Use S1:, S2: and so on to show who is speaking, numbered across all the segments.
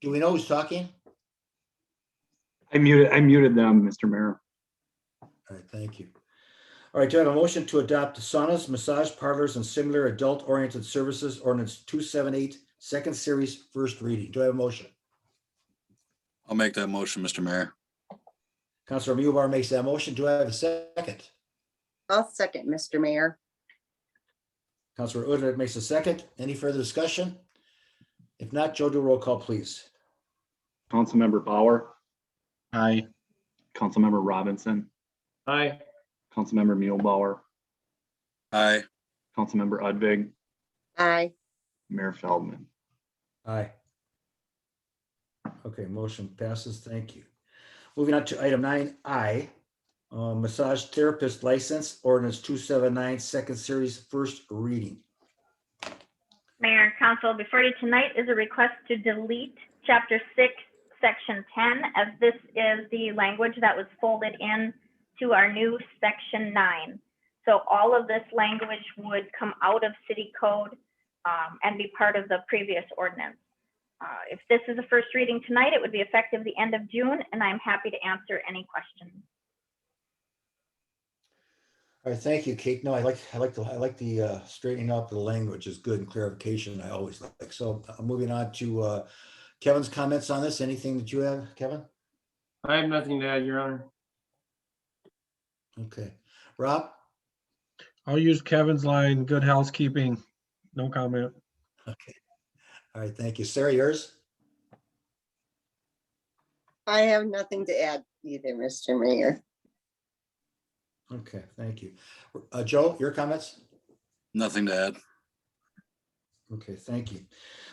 S1: Do we know who's talking?
S2: I muted, I muted them, Mr. Mayor.
S1: All right, thank you. All right, do I have a motion to adopt saunas, massage parlors, and similar adult-oriented services ordinance 278, second series, first reading? Do I have a motion?
S3: I'll make that motion, Mr. Mayor.
S1: Counselor Mewbar makes that motion. Do I have a second?
S4: I'll second, Mr. Mayor.
S1: Counselor Udner makes a second. Any further discussion? If not, Joe, do a roll call, please.
S2: Councilmember Bauer,
S5: Aye.
S2: Councilmember Robinson,
S5: Aye.
S2: Councilmember Mulebauer,
S3: Aye.
S2: Councilmember Udvig,
S4: Aye.
S2: Mayor Feldman.
S1: Aye. Okay, motion passes. Thank you. Moving on to item nine I, uh, massage therapist license ordinance 279, second series, first reading.
S6: Mayor and Council, before you tonight is a request to delete Chapter 6, Section 10, as this is the language that was folded in to our new Section 9. So all of this language would come out of city code um, and be part of the previous ordinance. Uh, If this is a first reading tonight, it would be effective the end of June, and I'm happy to answer any questions.
S1: All right, thank you, Kate. No, I like, I like, the I like the uh, straightening up the language is good and clarification I always like. So uh, moving on to uh, Kevin's comments on this. Anything that you have, Kevin?
S5: I have nothing to add, Your Honor.
S1: Okay. Rob?
S7: I'll use Kevin's line, good housekeeping. No comment.
S1: Okay. All right, thank you. Sarah, yours?
S4: I have nothing to add either, Mr. Mayor.
S1: Okay, thank you. Uh, Joe, your comments?
S3: Nothing to add.
S1: Okay, thank you.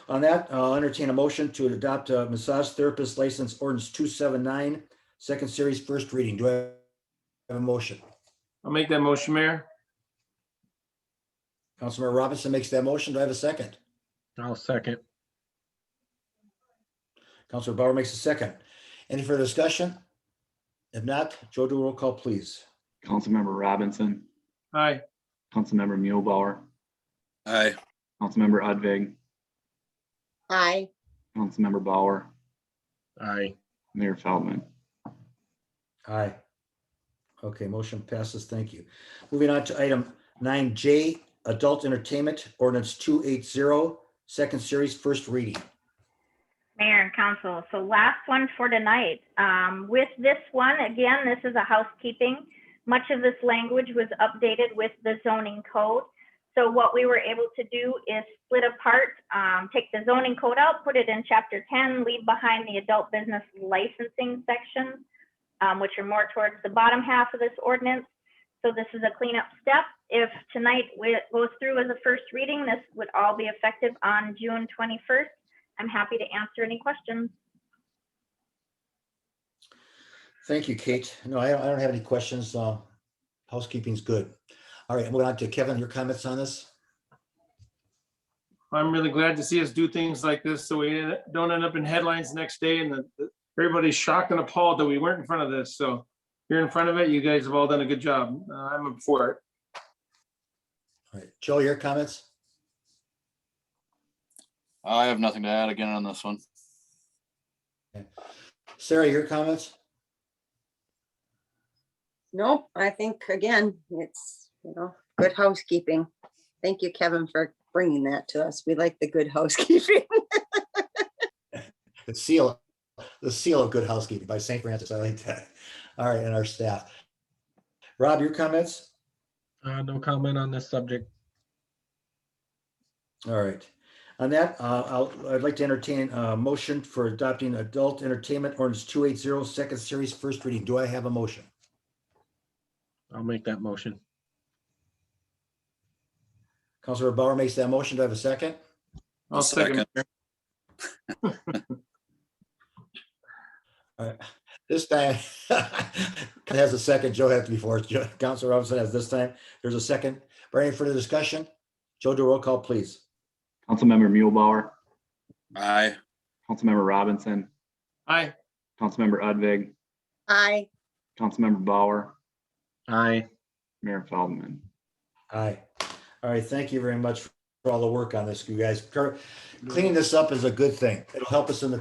S1: On that, I'll entertain a motion to adopt a massage therapist license ordinance 279, second series, first reading. Do I have a motion?
S5: I'll make that motion, Mayor.
S1: Councilmember Robinson makes that motion. Do I have a second?
S7: I'll second.
S1: Counselor Bauer makes a second. Any further discussion? If not, Joe, do a roll call, please.
S2: Councilmember Robinson,
S5: Aye.
S2: Councilmember Mulebauer,
S3: Aye.
S2: Councilmember Udvig,
S4: Aye.
S2: Councilmember Bauer,
S7: Aye.
S2: Mayor Feldman.
S1: Aye. Okay, motion passes. Thank you. Moving on to item nine J, adult entertainment ordinance 280, second series, first reading.
S6: Mayor and council, so last one for tonight. Um, with this one, again, this is a housekeeping. Much of this language was updated with the zoning code. So what we were able to do is split apart, um, take the zoning code out, put it in chapter ten, leave behind the adult business licensing section, um, which are more towards the bottom half of this ordinance. So this is a cleanup step. If tonight wi- goes through as a first reading, this would all be effective on June twenty-first. I'm happy to answer any questions.
S1: Thank you, Kate. No, I don't, I don't have any questions. Uh, housekeeping's good. All right, moving on to Kevin, your comments on this?
S5: I'm really glad to see us do things like this so we don't end up in headlines next day and that everybody's shocked and appalled that we weren't in front of this. So you're in front of it. You guys have all done a good job. Uh, I'm for it.
S1: All right, Joe, your comments?
S3: I have nothing to add again on this one.
S1: Sarah, your comments?
S4: Nope, I think again, it's, you know, good housekeeping. Thank you, Kevin, for bringing that to us. We like the good housekeeping.
S1: The seal, the seal of good housekeeping by St. Francis. I like that. All right, and our staff. Rob, your comments?
S7: Uh, no comment on this subject.
S1: All right. On that, uh, I'll, I'd like to entertain a motion for adopting adult entertainment ordinance 280, second series, first reading. Do I have a motion?
S7: I'll make that motion.
S1: Counselor Bauer makes that motion. Do I have a second?
S5: I'll second.
S1: This time, it has a second. Joe had to be forced. Joe- Counselor Robinson has this time. There's a second. For any further discussion? Joe, do a roll call, please.
S2: Councilmember Mulebauer,
S3: Aye.
S2: Councilmember Robinson,
S5: Aye.
S2: Councilmember Udvig,
S4: Aye.
S2: Councilmember Bauer,
S7: Aye.
S2: Mayor Feldman.
S1: Aye. All right, thank you very much for all the work on this, you guys. Cur- Cleaning this up is a good thing. It'll help us in the